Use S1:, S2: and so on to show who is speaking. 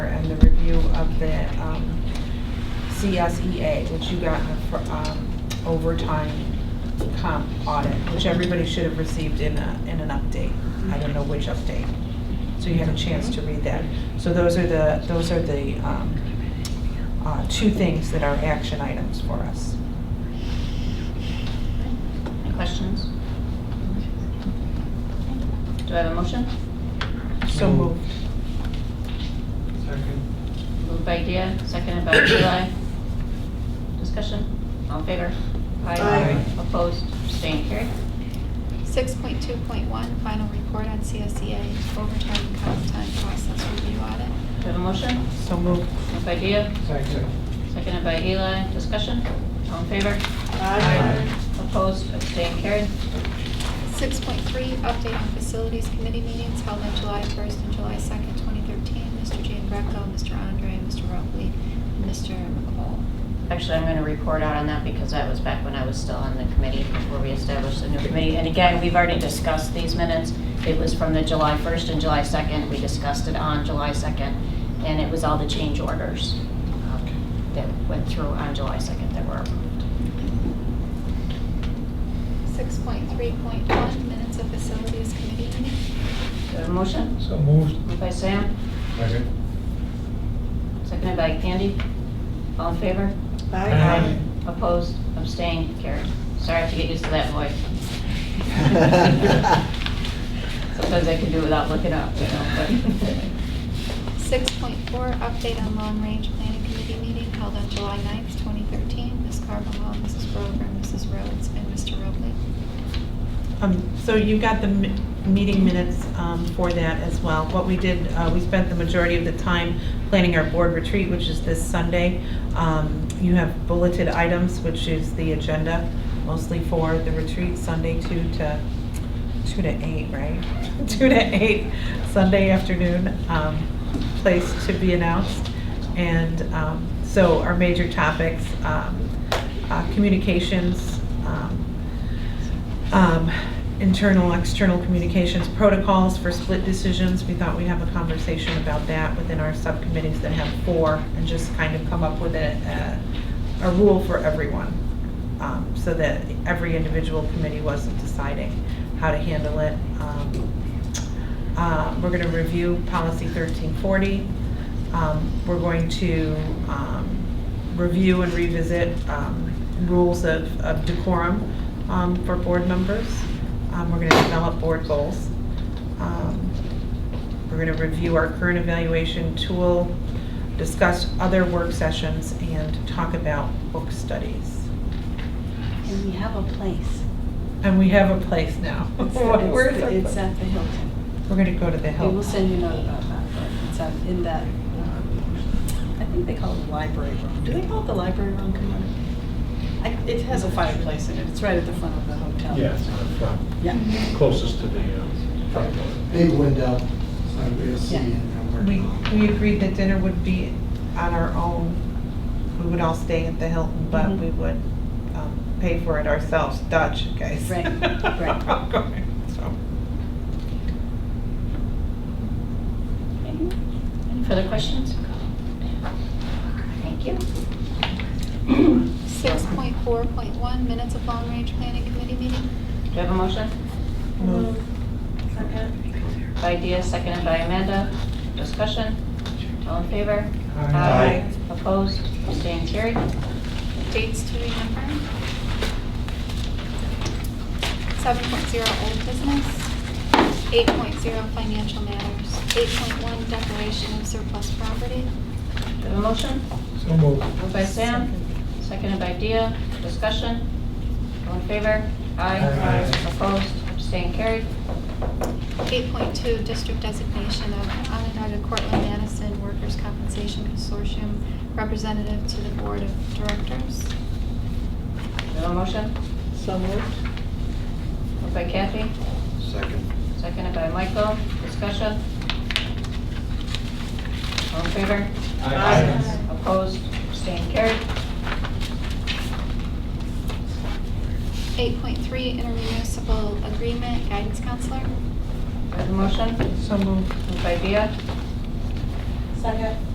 S1: of the um, CSEA, which you got in the fir- um, overtime comp audit, which everybody should have received in a, in an update. I don't know which update. So you had a chance to read that. So those are the, those are the um, uh, two things that are action items for us.
S2: Any questions? Do I have a motion?
S1: So
S3: Mm.
S1: moved.
S3: Second.
S2: Moved by Dia, seconded by Eli. Discussion? All in favor?
S3: Aye.
S2: Opposed? Abstained? Carried.
S4: 6.2.1, final report on CSEA overtime and comp time process review audit.
S2: Do I have a motion?
S1: So moved.
S2: Moved by Dia,
S3: Second.
S2: seconded by Eli. Discussion? All in favor? Opposed? Abstained? Carried.
S4: 6.3, update on facilities committee meetings held on July 1st and July 2nd, 2013. Mr. Jean Greco, Mr. Andre, Mr. Robley, and Mr. McCall.
S2: Actually, I'm going to report out on that because that was back when I was still on the committee before we established the new committee. And again, we've already discussed these minutes. It was from the July 1st and July 2nd. We discussed it on July 2nd, and it was all the change orders um, that went through on July 2nd that were approved.
S4: 6.3.1, minutes of facilities committee meeting.
S2: Do I have a motion?
S3: So moved.
S2: Moved by Sam,
S3: Second.
S2: seconded by Candy. All in favor?
S3: Aye.
S2: Opposed? Abstained? Carried. Sorry, I have to get used to that voice. Sometimes I can do it without looking up, you know, but...
S4: 6.4, update on long range planning committee meeting held on July 9th, 2013. Ms. Carbonneau, Mrs. Brover, Mrs. Rhodes, and Mr. Robley.
S1: Um, So you got the mi- meeting minutes um, for that as well. What we did, uh, we spent the majority of the time planning our board retreat, which is this Sunday. Um, You have bulleted items, which is the agenda, mostly for the retreat, Sunday 2 to, 2 to 8, right? 2 to 8, Sunday afternoon, um, place to be announced. And um, so our major topics, um, uh, communications, um, um, internal, external communications protocols for split decisions. We thought we'd have a conversation about that within our subcommittees that have four and just kind of come up with a, a, a rule for everyone. um, So that every individual committee wasn't deciding how to handle it. Um, uh, We're going to review policy 1340. Um, We're going to um, review and revisit um, rules of of decorum um, for board members. Um, We're going to develop board goals. Um, We're going to review our current evaluation tool, discuss other work sessions, and talk about book studies.
S5: And we have a place.
S1: And we have a place now.
S5: It's-
S1: Where's
S5: it's-
S1: our-
S5: It's at the Hilton.
S1: We're going to go to the
S5: We
S1: Hilton.
S5: will send you a note about that, but it's up in that, um, I think they call it the library room. Do they call it the library room, Kamona? I It has a fireplace in it. It's right at the front of the hotel.
S6: Yes, on the front,
S5: Yeah.
S6: closest to the uh, front door.
S7: big window, so we'll see and work
S1: We,
S7: on it.
S1: we agreed that dinner would be on our own. We would all stay at the Hilton, but
S5: Mhm.
S1: we would um, pay for it ourselves, Dutch, guys.
S5: Right, right.
S1: So,
S2: Any further questions? Thank you.
S4: 6.4.1, minutes of long range planning committee meeting.
S2: Do you have a motion?
S1: move.
S2: By Dia, seconded by Amanda. Discussion? All in favor?
S3: Aye.
S2: Opposed? Abstained? Carried.
S4: Dates to remember. 7.0 old business. 8.0 financial matters. 8.1 declaration of surplus property.
S2: Do you have a motion?
S3: So moved.
S2: Moved by Sam, seconded by Dia. Discussion? All in favor?
S3: Aye.
S2: Opposed? Abstained? Carried.
S4: 8.2 district designation of Onondaga Cortland Madison Workers' Compensation Consortium representative to the board of directors.
S2: Do you have a motion?
S5: So moved.
S2: Moved by Kathy,
S6: Second.
S2: seconded by Michael. Discussion? All in favor? Opposed? Abstained? Carried.
S4: 8.3 intermunicipal agreement guidance counselor.
S2: Do I have a motion?
S1: So moved.
S2: Moved by Dia,
S5: Second.